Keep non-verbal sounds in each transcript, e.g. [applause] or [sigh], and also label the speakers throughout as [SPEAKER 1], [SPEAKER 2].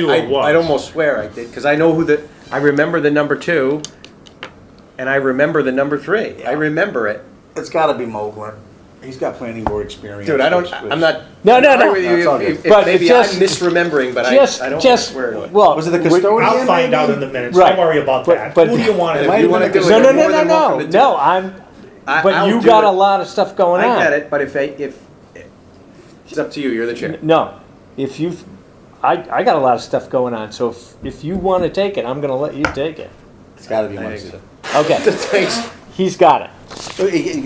[SPEAKER 1] knew
[SPEAKER 2] I,
[SPEAKER 1] it was.
[SPEAKER 2] I'd almost swear I did, because I know who the, I remember the number two, and I remember the number three. I remember it.
[SPEAKER 3] It's got to be Mogler. He's got planning board experience.
[SPEAKER 2] Dude, I don't,
[SPEAKER 3] which-
[SPEAKER 2] I'm not.
[SPEAKER 4] No, no,
[SPEAKER 2] I'm
[SPEAKER 4] no.
[SPEAKER 2] with you.
[SPEAKER 3] That's all
[SPEAKER 2] If-
[SPEAKER 3] good.
[SPEAKER 2] if-
[SPEAKER 4] But
[SPEAKER 2] Maybe I'm
[SPEAKER 4] just-
[SPEAKER 2] misremembering, but I,
[SPEAKER 4] Just,
[SPEAKER 2] I don't wanna
[SPEAKER 4] just,
[SPEAKER 2] swear to it.
[SPEAKER 4] well.
[SPEAKER 3] Was it the
[SPEAKER 4] we-
[SPEAKER 3] custodian?
[SPEAKER 1] I'll find out
[SPEAKER 3] maybe?
[SPEAKER 1] in the minutes.
[SPEAKER 4] Right.
[SPEAKER 1] Don't worry about
[SPEAKER 4] But-
[SPEAKER 1] that.
[SPEAKER 4] but-
[SPEAKER 1] Who do you want?
[SPEAKER 2] And
[SPEAKER 3] It
[SPEAKER 2] if
[SPEAKER 3] might
[SPEAKER 2] you
[SPEAKER 3] have
[SPEAKER 2] wanna
[SPEAKER 3] been the
[SPEAKER 2] do it,
[SPEAKER 4] No, no,
[SPEAKER 2] you're
[SPEAKER 4] no,
[SPEAKER 2] more
[SPEAKER 4] no,
[SPEAKER 2] than
[SPEAKER 4] no,
[SPEAKER 2] welcome to do
[SPEAKER 4] no,
[SPEAKER 2] it.
[SPEAKER 4] I'm,
[SPEAKER 2] I-
[SPEAKER 4] but
[SPEAKER 2] I'll
[SPEAKER 4] you
[SPEAKER 2] do
[SPEAKER 4] got
[SPEAKER 2] it.
[SPEAKER 4] a lot of stuff going on.
[SPEAKER 2] I get it, but if, I- if, it's up to you, you're the
[SPEAKER 4] [laughs]
[SPEAKER 2] chair.
[SPEAKER 4] No, if you've, I, I got a lot of stuff going on, so if, if you wanna take it, I'm gonna let you take it.
[SPEAKER 3] It's got to be
[SPEAKER 2] I think
[SPEAKER 3] Muncie.
[SPEAKER 2] so.
[SPEAKER 4] Okay,
[SPEAKER 2] Thanks.
[SPEAKER 4] he's got it.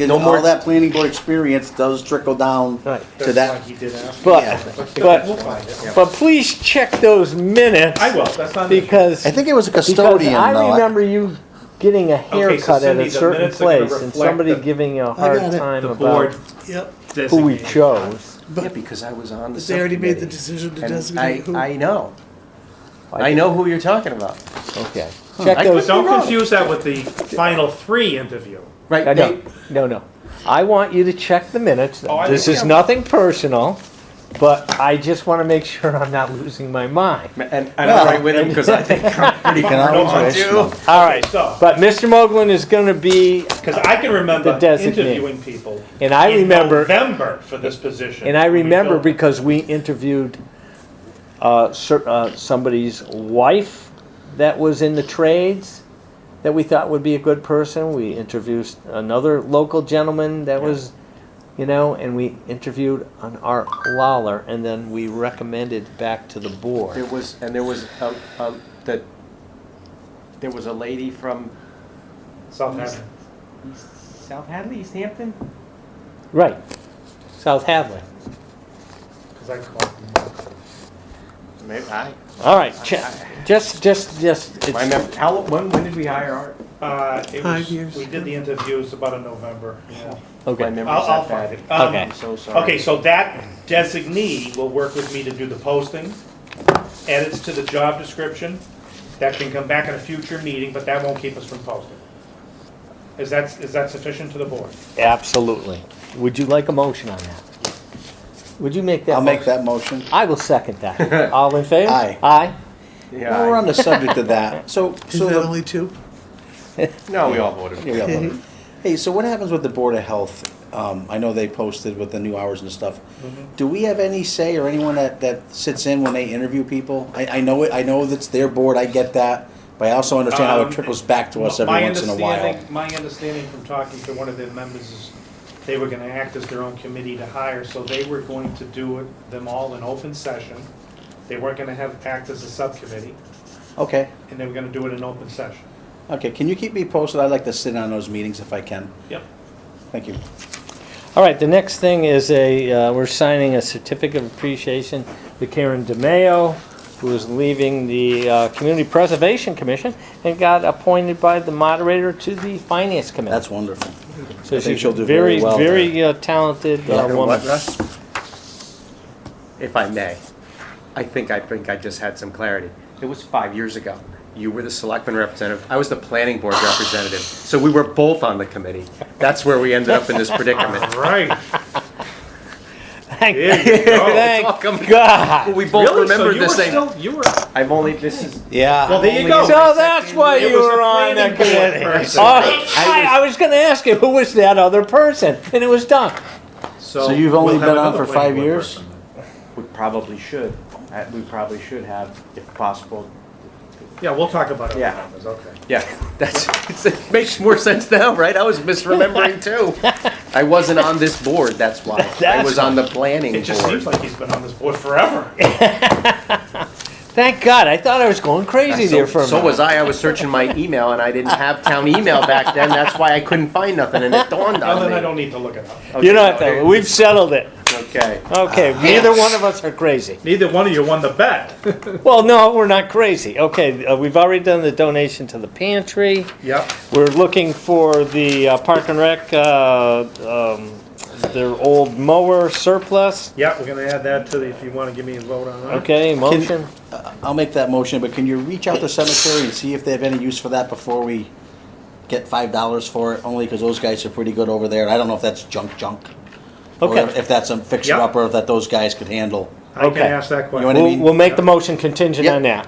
[SPEAKER 3] No more. All that planning board experience does trickle down
[SPEAKER 4] Right.
[SPEAKER 3] to
[SPEAKER 1] That's why
[SPEAKER 3] that.
[SPEAKER 1] he did ask.
[SPEAKER 3] Yeah.
[SPEAKER 4] But,
[SPEAKER 1] We'll
[SPEAKER 4] but,
[SPEAKER 1] find it.
[SPEAKER 4] but please check those minutes
[SPEAKER 1] I will. That's not. an issue.
[SPEAKER 4] because,
[SPEAKER 3] I think it was a
[SPEAKER 4] because
[SPEAKER 3] custodian. though.
[SPEAKER 4] I remember you getting a haircut at
[SPEAKER 1] Cindy,
[SPEAKER 4] a
[SPEAKER 1] the
[SPEAKER 4] certain
[SPEAKER 1] minutes are gonna
[SPEAKER 4] place and
[SPEAKER 1] reflect
[SPEAKER 4] somebody
[SPEAKER 1] the-
[SPEAKER 4] giving you a hard
[SPEAKER 5] got it.
[SPEAKER 4] time
[SPEAKER 1] The board.
[SPEAKER 4] about
[SPEAKER 5] Yep,
[SPEAKER 4] who we
[SPEAKER 1] designated.
[SPEAKER 4] chose.
[SPEAKER 2] Yeah,
[SPEAKER 5] but
[SPEAKER 2] because I was on the
[SPEAKER 5] they already made the
[SPEAKER 2] subcommittee.
[SPEAKER 5] decision to
[SPEAKER 2] And
[SPEAKER 5] designate who.
[SPEAKER 2] I, I know.
[SPEAKER 4] I-
[SPEAKER 2] I know who you're talking about.
[SPEAKER 4] Okay, check
[SPEAKER 2] I
[SPEAKER 4] those.
[SPEAKER 2] could-
[SPEAKER 1] Don't
[SPEAKER 2] wrong.
[SPEAKER 1] confuse that with the final three interview.
[SPEAKER 2] Right,
[SPEAKER 4] Uh, No,
[SPEAKER 2] Nate?
[SPEAKER 4] no, no. I want you to check the minutes.
[SPEAKER 1] Oh, I
[SPEAKER 4] This is
[SPEAKER 1] understand.
[SPEAKER 4] nothing personal, but I just want to make sure I'm not losing my mind.
[SPEAKER 2] And and I'm right with him because I think I'm pretty
[SPEAKER 3] You can always
[SPEAKER 1] No, I
[SPEAKER 3] wish.
[SPEAKER 2] do.
[SPEAKER 4] All right,
[SPEAKER 1] so-
[SPEAKER 4] but Mr. Moglen is going to be,
[SPEAKER 1] Because I can remember
[SPEAKER 4] The designate.
[SPEAKER 1] interviewing people.
[SPEAKER 4] And I
[SPEAKER 1] in
[SPEAKER 4] remember-
[SPEAKER 1] November for this position.
[SPEAKER 4] and I
[SPEAKER 1] when we
[SPEAKER 4] remember
[SPEAKER 1] filled it.
[SPEAKER 4] because we interviewed uh, cer- uh, somebody's wife that was in the trades that we thought would be a good person. We interviewed another local gentleman that was, you know, and we interviewed an Art Lawler, and then we recommended back to the board.
[SPEAKER 2] There was, and there was, um, um, that, there was a lady from
[SPEAKER 1] Southampton.
[SPEAKER 2] South Hadley, East Hampton?
[SPEAKER 4] Right. South Hadley.
[SPEAKER 1] 'Cause I called.
[SPEAKER 2] Maybe, I,
[SPEAKER 4] All right, che- just, just, just, it's-
[SPEAKER 2] my mem, how, when, when did we hire Art?
[SPEAKER 1] Uh, it
[SPEAKER 5] Five
[SPEAKER 1] was-
[SPEAKER 5] years
[SPEAKER 1] We did the interviews about in November.
[SPEAKER 2] My
[SPEAKER 4] okay,
[SPEAKER 2] memory's
[SPEAKER 1] I'll, I'll
[SPEAKER 2] that
[SPEAKER 1] find
[SPEAKER 2] bad.
[SPEAKER 1] it. Um,
[SPEAKER 4] Okay.
[SPEAKER 2] I'm so sorry.
[SPEAKER 1] Okay, so that designee will work with me to do the posting, edits to the job description. That can come back in a future meeting, but that won't keep us from posting. Is that, is that sufficient to the board?
[SPEAKER 4] absolutely. Would you like a motion on that? Would you make that?
[SPEAKER 3] I'll make
[SPEAKER 4] motion?
[SPEAKER 3] that motion.
[SPEAKER 4] I will second that. All in favor?
[SPEAKER 3] Aye.
[SPEAKER 4] Aye.
[SPEAKER 2] Yeah,
[SPEAKER 3] Well, we're on the subject of that. So,
[SPEAKER 5] Is
[SPEAKER 3] so
[SPEAKER 5] that
[SPEAKER 3] the,
[SPEAKER 5] only two?
[SPEAKER 2] no, we all voted.
[SPEAKER 3] yeah, yeah, but- [laughs] hey, so what happens with the board of health? Um, I know they posted with the new hours and stuff.
[SPEAKER 1] Mm-hmm.
[SPEAKER 3] Do we have any say or anyone that, that sits in when they interview people? I, I know it. I know that's their board. I get that, but I also understand how
[SPEAKER 1] Um,
[SPEAKER 3] it trickles back to us every
[SPEAKER 1] My
[SPEAKER 3] once in a while.
[SPEAKER 1] understanding- My understanding from talking to one of their members is they were gonna act as their own committee to hire, so they were going to do it, them all in open session. They weren't gonna have, act as a subcommittee,
[SPEAKER 3] Okay,
[SPEAKER 1] and they were gonna do it in open session.
[SPEAKER 3] okay. Can you keep me posted? I'd like to sit on those meetings if I can.
[SPEAKER 1] Yep.
[SPEAKER 3] Thank you.
[SPEAKER 4] All right, the next thing is a, uh, we're signing a certificate of appreciation to Karen DeMayo, who is leaving the uh, Community Preservation Commission and got appointed by the moderator to the Finance Committee.
[SPEAKER 3] That's wonderful.
[SPEAKER 4] So
[SPEAKER 3] I think
[SPEAKER 4] she's
[SPEAKER 3] she'll do very well there.
[SPEAKER 4] Very uh, talented uh,
[SPEAKER 3] Yeah.
[SPEAKER 4] woman.
[SPEAKER 2] What, Russ? If I may, I think, I think I just had some clarity. It was five years ago. You were the selectman representative, I was the planning board representative. So we were both on the committee. That's where we ended up in this predicament.
[SPEAKER 1] [laughs] Right. [laughs]
[SPEAKER 4] Thank
[SPEAKER 1] There you go.
[SPEAKER 4] thank
[SPEAKER 2] It's all coming-
[SPEAKER 4] God.
[SPEAKER 2] [laughs] We both remembered the same.
[SPEAKER 1] Still, you were.
[SPEAKER 2] I've only, this is,
[SPEAKER 3] Yeah.
[SPEAKER 1] Well, there you
[SPEAKER 2] only
[SPEAKER 1] go.
[SPEAKER 2] a
[SPEAKER 4] So that's why
[SPEAKER 1] It
[SPEAKER 4] you
[SPEAKER 1] was a
[SPEAKER 4] were on the
[SPEAKER 1] planning board
[SPEAKER 4] committee.
[SPEAKER 1] person.
[SPEAKER 4] Oh, I, I was going to ask you who was that other person, and it was Don.
[SPEAKER 3] [laughs] So you've only been on for five years?
[SPEAKER 2] we probably should, I- we probably should have, if possible.
[SPEAKER 1] Yeah, we'll talk about it. when
[SPEAKER 2] Yeah.
[SPEAKER 1] it happens, Okay.
[SPEAKER 2] Yeah, that's, it's- it makes more sense now, right? I was misremembering too. I wasn't on this board, that's why. I
[SPEAKER 4] That's
[SPEAKER 2] was on the planning
[SPEAKER 1] It just seems
[SPEAKER 2] board.
[SPEAKER 1] like he's been on this board
[SPEAKER 2] [laughs]
[SPEAKER 1] forever.
[SPEAKER 4] Thank God. I thought I was going crazy there for a
[SPEAKER 2] So so
[SPEAKER 4] minute.
[SPEAKER 2] was I, I was searching my email and I didn't have town email back then, that's why I couldn't find nothing and it dawned
[SPEAKER 1] Now then, I
[SPEAKER 2] on me.
[SPEAKER 1] don't need to look it up.
[SPEAKER 4] You know what, though? We've settled it.
[SPEAKER 2] Okay.
[SPEAKER 4] Okay,
[SPEAKER 2] Uh,
[SPEAKER 4] neither one of us are crazy.
[SPEAKER 1] Neither one of you won the
[SPEAKER 2] [laughs]
[SPEAKER 1] bet.
[SPEAKER 4] Well, no, we're not crazy. Okay, uh, we've already done the donation to the pantry.
[SPEAKER 1] Yep.
[SPEAKER 4] We're looking for the uh, Park and Rec, uh, um, their old mower surplus.
[SPEAKER 1] Yep, we're gonna add that to the, if you wanna give me a vote on that.
[SPEAKER 4] Okay, motion.
[SPEAKER 3] I'll make that motion, but can you reach out to cemetery and see if they have any use for that before we get five dollars for it? Only because those guys are pretty good over there. I don't know if that's junk junk. or
[SPEAKER 4] Okay.
[SPEAKER 3] If that's a fixer
[SPEAKER 1] Yeah.
[SPEAKER 3] upper that those guys could handle.
[SPEAKER 1] I can
[SPEAKER 4] Okay.
[SPEAKER 1] ask that question.
[SPEAKER 3] You wanna
[SPEAKER 4] We'll,
[SPEAKER 3] mean-
[SPEAKER 4] we'll make the motion contingent
[SPEAKER 3] Yep.
[SPEAKER 4] on that.